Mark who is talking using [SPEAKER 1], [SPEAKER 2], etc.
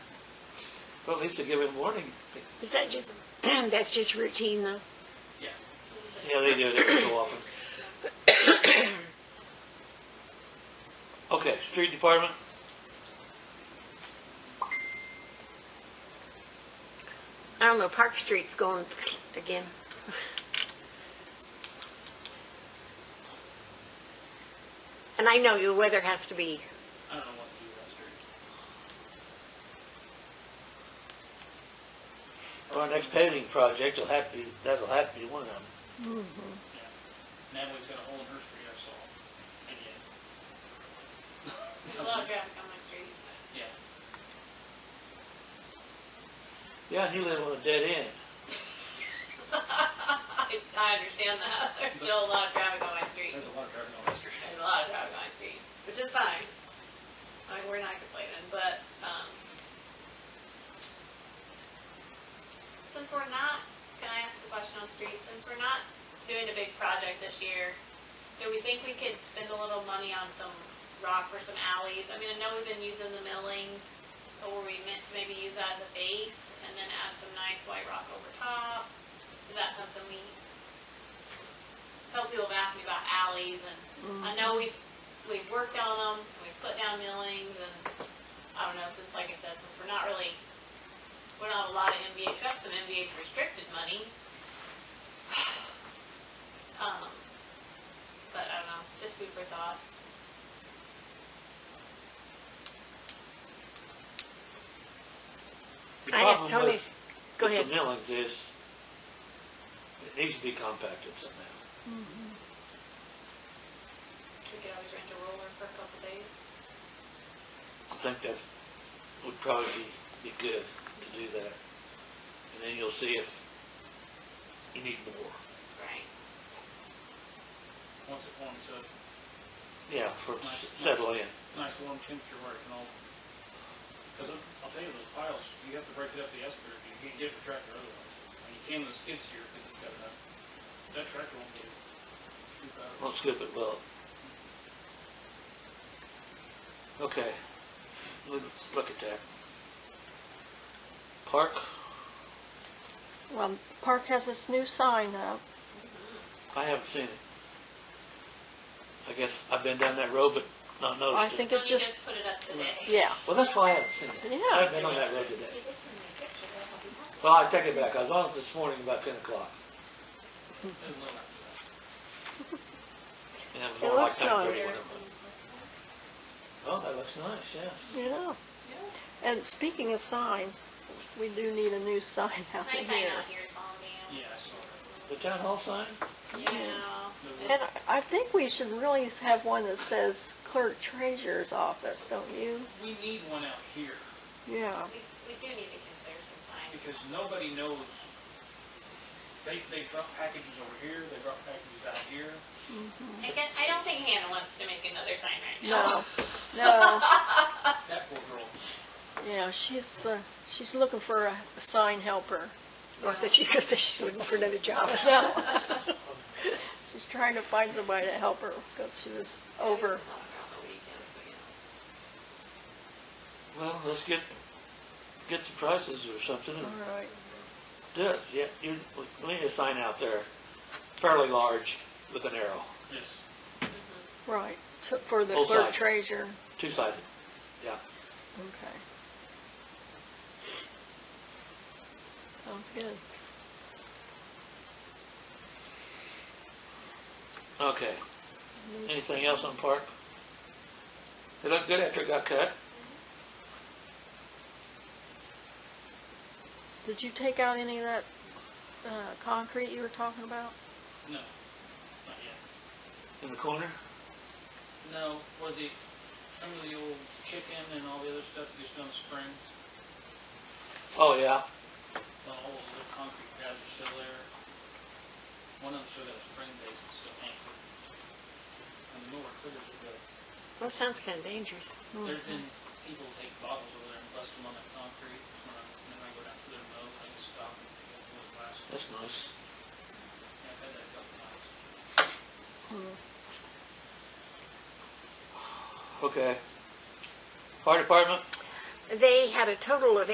[SPEAKER 1] Well, at least they give him warning.
[SPEAKER 2] Is that just, that's just routine though?
[SPEAKER 3] Yeah.
[SPEAKER 1] Yeah, they do, they do so often. Okay, street department?
[SPEAKER 2] I don't know, Park Street's going again. And I know the weather has to be,
[SPEAKER 3] I don't know what to do with that street.
[SPEAKER 1] Our next paving project will have to be, that'll have to be one of them.
[SPEAKER 3] Natalie's got a hole in her street, I saw. Again.
[SPEAKER 4] There's a lot of traffic on my street.
[SPEAKER 3] Yeah.
[SPEAKER 1] Yeah, and you live on a dead end.
[SPEAKER 4] I, I understand that. There's still a lot of traffic on my street.
[SPEAKER 3] There's a lot of traffic on that street.
[SPEAKER 4] There's a lot of traffic on my street, which is fine. I mean, we're not complaining, but, um, since we're not, can I ask a question on streets? Since we're not doing a big project this year, do we think we could spend a little money on some rock or some alleys? I mean, I know we've been using the millings, but were we meant to maybe use that as a base and then add some nice white rock over top? Is that something we, a couple people have asked me about alleys and I know we've, we've worked on them, and we've put down millings and, I don't know, since, like I said, since we're not really, we're not a lot of MVH, we have some MVH restricted money. Um, but I don't know, just food for thought.
[SPEAKER 1] The
[SPEAKER 2] I asked
[SPEAKER 1] problem
[SPEAKER 2] Tony,
[SPEAKER 1] with
[SPEAKER 2] go
[SPEAKER 1] the
[SPEAKER 2] ahead.
[SPEAKER 1] millings is, it needs to be compacted somehow.
[SPEAKER 4] We could always rent a roller for a couple days.
[SPEAKER 1] I think that would probably be, be good to do that. And then you'll see if you need more.
[SPEAKER 4] Right.
[SPEAKER 3] Once it warms up,
[SPEAKER 1] Yeah, for, it to s- settle in.
[SPEAKER 3] nice warm temperature where it can all, because I'll tell you, those piles, you have to break it up the escalator, you can't get it with tractor otherwise. And you can with a skid steer, because it's got enough, that tractor won't get it. Scoop out.
[SPEAKER 1] Won't scoop it well. Okay, let's look at that. Park,
[SPEAKER 5] Well, Park has this new sign up.
[SPEAKER 1] I haven't seen it. I guess I've been down that road but not
[SPEAKER 5] I
[SPEAKER 1] noticed it.
[SPEAKER 5] think
[SPEAKER 4] Don't
[SPEAKER 5] it
[SPEAKER 4] you
[SPEAKER 5] just,
[SPEAKER 4] just put it up today?
[SPEAKER 5] yeah.
[SPEAKER 1] Well, that's why I haven't seen it.
[SPEAKER 5] Yeah.
[SPEAKER 1] I've been on that road today. Well, I take it back, I was on it this morning about ten o'clock.
[SPEAKER 3] There's a little after that.
[SPEAKER 1] And it was
[SPEAKER 5] It
[SPEAKER 1] more like
[SPEAKER 5] looks nice.
[SPEAKER 1] 9:30 when I went. Oh, that looks nice, yes.
[SPEAKER 5] You know. And speaking of signs, we do need a new sign out
[SPEAKER 4] Nice
[SPEAKER 5] here.
[SPEAKER 4] sign out here is falling down.
[SPEAKER 3] Yeah, I saw that.
[SPEAKER 1] The town hall sign?
[SPEAKER 4] Yeah.
[SPEAKER 3] There
[SPEAKER 5] And I- I think we should really have one that says clerk treasurer's office, don't you?
[SPEAKER 3] was- We need one out here,
[SPEAKER 5] Yeah.
[SPEAKER 4] We, we do need to consider some signs.
[SPEAKER 3] because nobody knows, they, they drop packages over here, they drop packages out here.
[SPEAKER 4] I guess, I don't think Hannah wants to make another sign right now.
[SPEAKER 5] No, no,
[SPEAKER 3] That poor girl,
[SPEAKER 5] yeah, she's, uh, she's looking for a a sign helper.
[SPEAKER 2] Or that she could say she's looking for another job.
[SPEAKER 5] No. She's trying to find somebody to help her because she was over.
[SPEAKER 1] Well, let's get, get some prices or something and
[SPEAKER 5] All right.
[SPEAKER 1] do it. Yeah, you, we need a sign out there, fairly large with an arrow,
[SPEAKER 3] yes.
[SPEAKER 5] Right, so for the
[SPEAKER 1] Both
[SPEAKER 5] clerk
[SPEAKER 1] sides.
[SPEAKER 5] treasurer,
[SPEAKER 1] two-sided. Yeah,
[SPEAKER 5] okay. Sounds good.
[SPEAKER 1] okay. Anything else on park? It looked good after it got cut.
[SPEAKER 5] Did you take out any of that, uh, concrete you were talking about?
[SPEAKER 3] No, not yet.
[SPEAKER 1] In the corner?
[SPEAKER 3] No, was it, some of the old chicken and all the other stuff that gets done in springs?
[SPEAKER 1] Oh, yeah.
[SPEAKER 3] The whole little concrete pads are still there. One of them still got a spring base that's still anchored. And the mower critters are good.
[SPEAKER 2] That sounds kind of dangerous.
[SPEAKER 3] There's been people take bottles over there and bust them on that concrete. When I, when I go down through their mow, I just stop and pick up one glass.
[SPEAKER 1] That's nice.
[SPEAKER 3] I've had that a couple times.
[SPEAKER 1] Okay. Fire department?
[SPEAKER 2] They had a total of